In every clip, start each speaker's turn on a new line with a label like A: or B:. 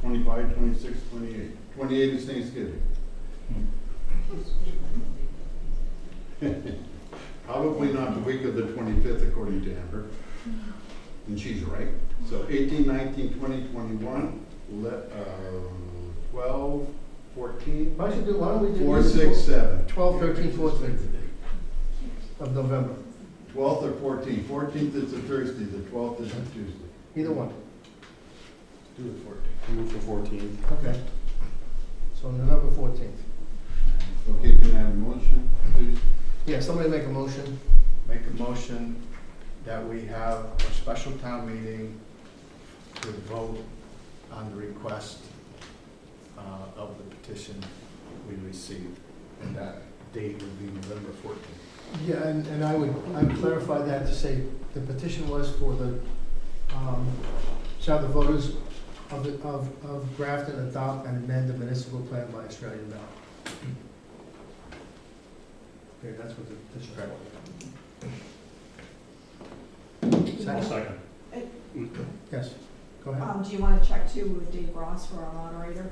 A: 25, 26, 28. 28 is Thanksgiving. Probably not the week of the 25th, according to Amber. And she's right. So 18, 19, 20, 21, le- uh, 12, 14,
B: Why should do, why don't we do?
A: 4, 6, 7.
B: 12, 13, 14 of November,
A: 12th or 14th. 14th is a Thursday, the 12th is a Tuesday.
B: either one.
A: Do the 14th.
C: Move for fourteen.
B: Okay. So November 14th.
A: Okay, can I have a motion, please?
B: Yeah, somebody make a motion.
D: Make a motion that we have a special town meeting to vote on the request uh, of the petition we received. And that date would be November 14th.
B: Yeah, and, and I would, I would clarify that to say the petition was for the, um, shall the voters of, the- of, of Grafton adopt and amend the municipal plan by Australian ballot? Okay, that's what the petition is for. Second?
C: second.
B: Yes, go ahead.
E: Um, do you wanna check too with Dave Ross for our moderator?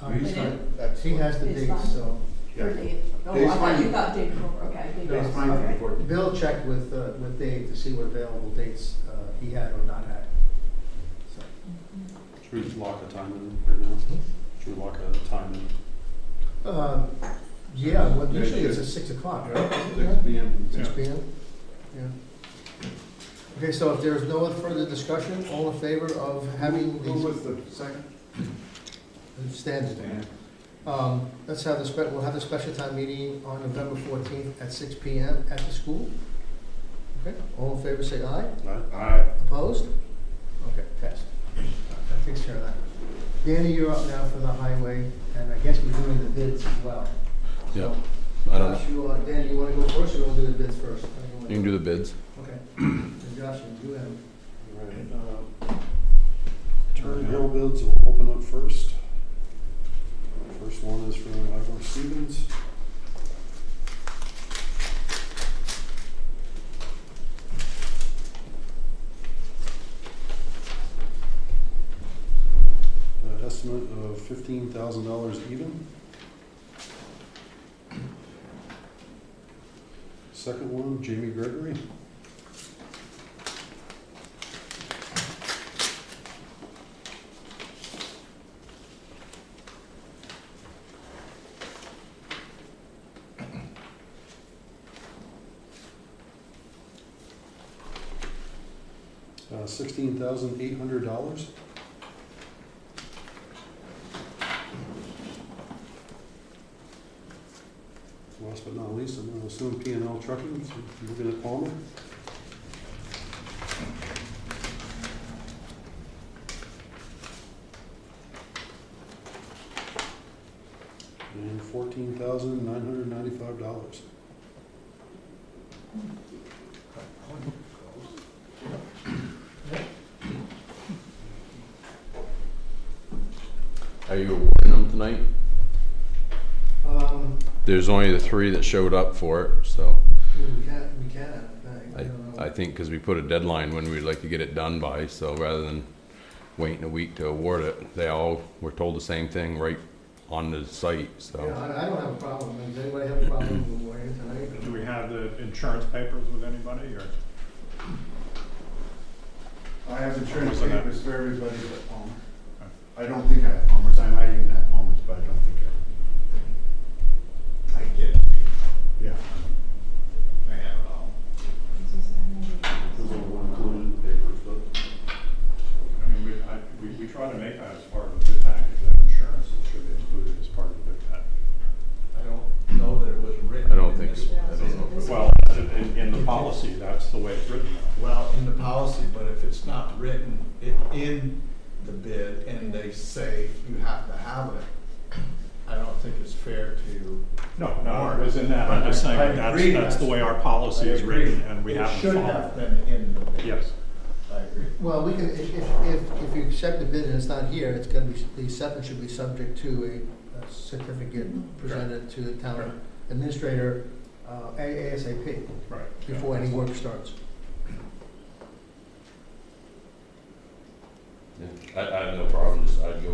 B: Uh, he's
E: Minute.
B: not-
D: That's
B: He has the
E: It's
B: dates,
E: fine.
B: so.
A: Yeah.
E: Or Dave? Oh, I
A: Dave's
E: thought
A: fine.
E: you thought Dave, Grohl. okay. Dave
B: No,
E: Grohl.
A: It's fine for the
E: Okay.
A: 14th.
B: Bill checked with, uh, with Dave to see what available dates uh, he had or not had. So,
C: Should we lock a time in right now? Should we lock a time in?
B: um, Yeah, well,
A: Yeah,
B: usually
A: sure.
B: it's at six o'clock, right?
A: Six P M.
B: Six P M? Yeah. Okay, so if there's no further discussion, all in favor of having
A: Who
B: these
A: was the second?
B: stands? Um, Let's have the, spe- we'll have the special time meeting on November fourteenth at six P M at the school. Okay, all in favor, say aye.
C: Aye.
B: Opposed? Okay, passed. That takes care of that. Danny, you're up now for the highway, and I guess we're doing the bids as well.
F: Yeah,
B: So,
F: I don't know.
B: Josh, you, uh, Danny, you wanna go first, or you wanna do the bids first? How
F: You
B: you
F: can
B: wanna-
F: do the bids.
B: Okay. And Josh, you have.
C: Turn Hill bids will open up first. First one is from Ivor Stevens. An Uh, estimate of fifteen thousand dollars even. Second one, Jamie Gregory. Uh, sixteen thousand eight hundred dollars. Last but not least, I'm gonna assume P and L Trucking, so you're looking at Palmer. And fourteen thousand nine hundred ninety-five dollars.
F: Are you awarding them tonight?
B: Um,
F: There's only the three that showed up for it, so
B: we can, we can, I, I don't
F: I
B: know.
F: think because we put a deadline when we'd like to get it done by, so rather than waiting a week to award it, they all were told the same thing right on the site,
B: Yeah,
F: so.
B: I, I don't have a problem. Does anybody have a problem with Warren tonight?
G: Do we have the insurance papers with anybody, or?
A: I have insurance
G: Who's on that?
A: papers for everybody but Palmer. I don't think I have Palmer's, I might even have Palmer's, but I don't think I have. I get it. Yeah. I have it all.
C: Those are one included in the papers, but.
G: I mean, we, I, we, we try to make that as part of the bid package, that insurance should be included as part of the bid package.
D: I don't know that it was written.
F: I don't think so. I don't know.
G: Well, in, in the policy, that's the way it's written.
D: Well, in the policy, but if it's not written i- in the bid and they say you have to have it, I don't think it's fair to.
G: No, no, it was in that, I'm just saying,
D: I
G: that's,
D: agree.
G: that's the way our policy is
D: I agree.
G: written, and we haven't
D: It should have
G: followed.
D: been in the bid.
G: Yes,
D: I agree.
B: Well, we can, if, if, if if you accept the bid and it's not here, it's gonna be, the acceptance should be subject to a- a certificate presented to the town administrator, uh, A- ASAP,
G: right. yeah.
B: before any work starts.
F: I, I have no problem, just I'd go